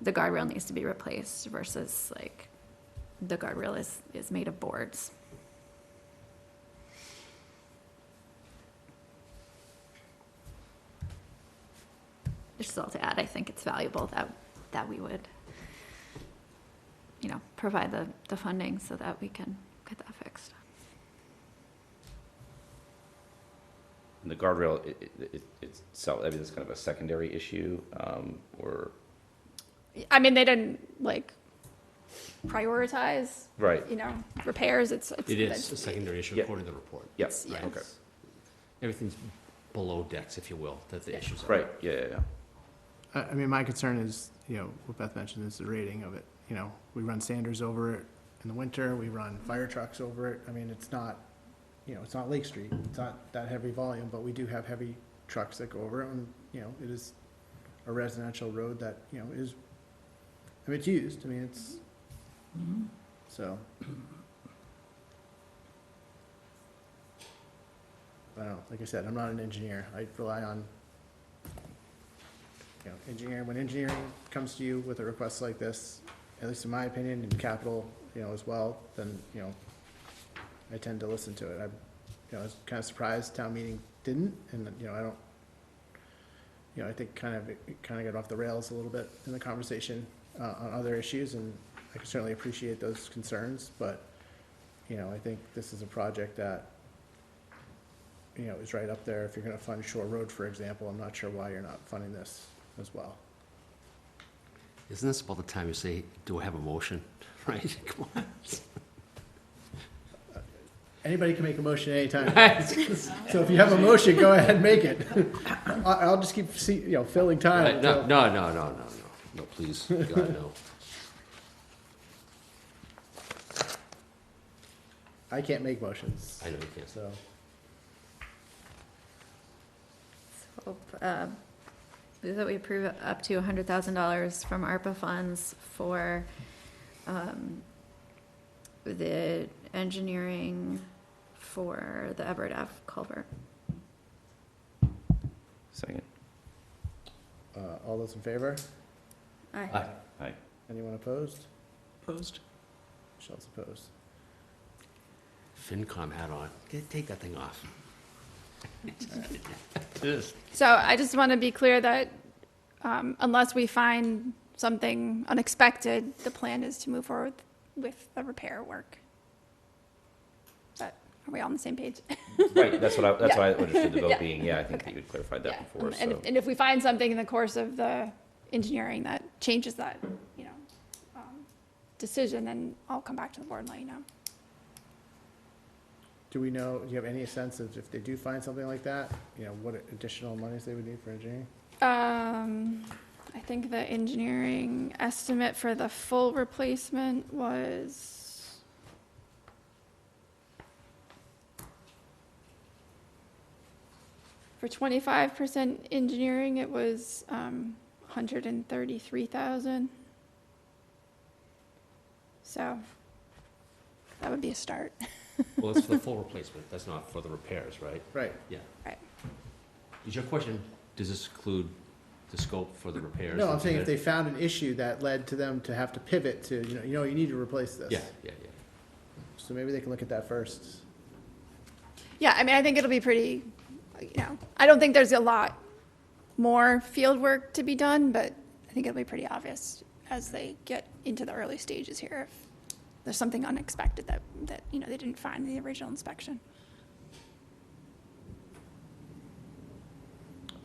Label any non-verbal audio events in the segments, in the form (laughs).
the guardrail needs to be replaced versus like the guardrail is, is made of boards. Just all to add, I think it's valuable that, that we would, you know, provide the, the funding so that we can get that fixed. And the guardrail i- i- i- itself, I mean, that's kind of a secondary issue, um, or, I mean, they didn't like prioritize, right, you know, repairs, it's. it's- It is a it's- secondary issue Yeah. according to the report. yes, Yeah. okay, Everything's below decks, if you will, that the issues are. right, yeah, yeah, yeah. I, I mean, my concern is, you know, what Beth mentioned is the rating of it. You know, we run Sanders over it in the winter, we run fire trucks over it. I mean, it's not, you know, it's not Lake Street, it's not that heavy volume, but we do have heavy trucks that go over it. And, you know, it is a residential road that, you know, is, I mean, it's used, I mean, it's, so. I don't know, like I said, I'm not an engineer. I rely on you know, engineering, when engineering comes to you with a request like this, at least in my opinion, and capital, you know, as well, then, you know, I tend to listen to it. I'm, you know, I was kind of surprised town meeting didn't, and, you know, I don't, you know, I think kind of, it kind of got off the rails a little bit in the conversation, uh, on other issues, and I can certainly appreciate those concerns, but, you know, I think this is a project that, you know, is right up there. If you're gonna fund Shore Road, for example, I'm not sure why you're not funding this as well. Isn't this about the time you say, do I have a motion? (laughs) Right, come on. Anybody can make a (laughs) motion anytime. So if you have a motion, go ahead and make it. I, I'll just keep, see, you know, filling time. Right, No, until- no, no, no, no, no, no, please, God, no. I can't make motions, I know you can't. so. So, uh, Move that we approve up to hundred thousand dollars from ARPA funds for, um, the engineering for the Everett F. culvert. Second, Uh, all those in favor? Aye. Aye. Anyone opposed? Opposed? Michelle's opposed. FinCom hat on, Get- take that thing off. Just- So I just want to be clear that um, unless we find something unexpected, the plan is to move forward with the repair work. But are we all on the same page? Right, that's what I, that's what I understood the vote (laughs) Yeah. being, yeah, I think that Okay. you had clarified that Yeah. before, And so, if- and if we find something in the course of the engineering that changes that, you know, um, decision, then I'll come back to the board and let you know. Do we know, do you have any sense of if they do find something like that, you know, what additional monies they would need for engineering? Um, I think the engineering estimate for the full replacement was. For twenty-five percent engineering, it was, um, hundred and thirty-three thousand. So, that would be a start. Well, that's for the full replacement, that's not for the repairs, right? Right, Yeah. Right. Is your question, does this include the scope for the repairs? no, I'm and- saying if they found an issue that led to them to have to pivot to, you know, you know, you need to replace this. Yeah, yeah, yeah. So maybe they can look at that first. Yeah, I mean, I think it'll be pretty, you know, I don't think there's a lot more field work to be done, but I think it'll be pretty obvious as they get into the early stages here if there's something unexpected that, that, you know, they didn't find in the original inspection.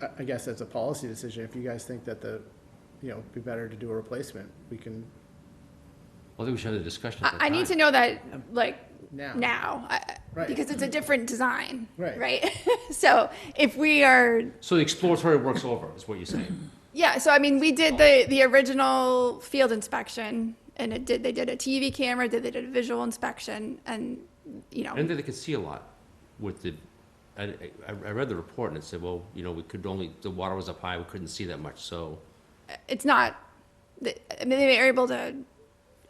I, I guess that's a policy decision. If you guys think that the, you know, it'd be better to do a replacement, we can Well, I think we should have the discussion at that I, I need to time. know that, like, Um, now. now, I- Right. because it's a different design, Right. right? (laughs) So if we are So the exploratory work's over, is what you're saying? Yeah, so I mean, we did the, the original field inspection and it did, they did a TV camera, did, they did a visual inspection and, you I didn't know, think they could see a lot with the, I, I, I read the report and it said, well, you know, we could only, the water was up high, we couldn't see that much, so. it's not, I mean, they were able to,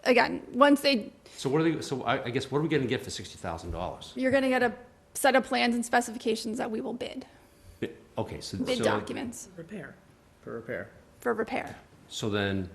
again, once they, So what are they, so I, I guess, what are we gonna get for sixty thousand dollars? you're gonna get a set of plans and specifications that we will bid, Okay, so, bid so, documents Repair. For repair. for repair. so then,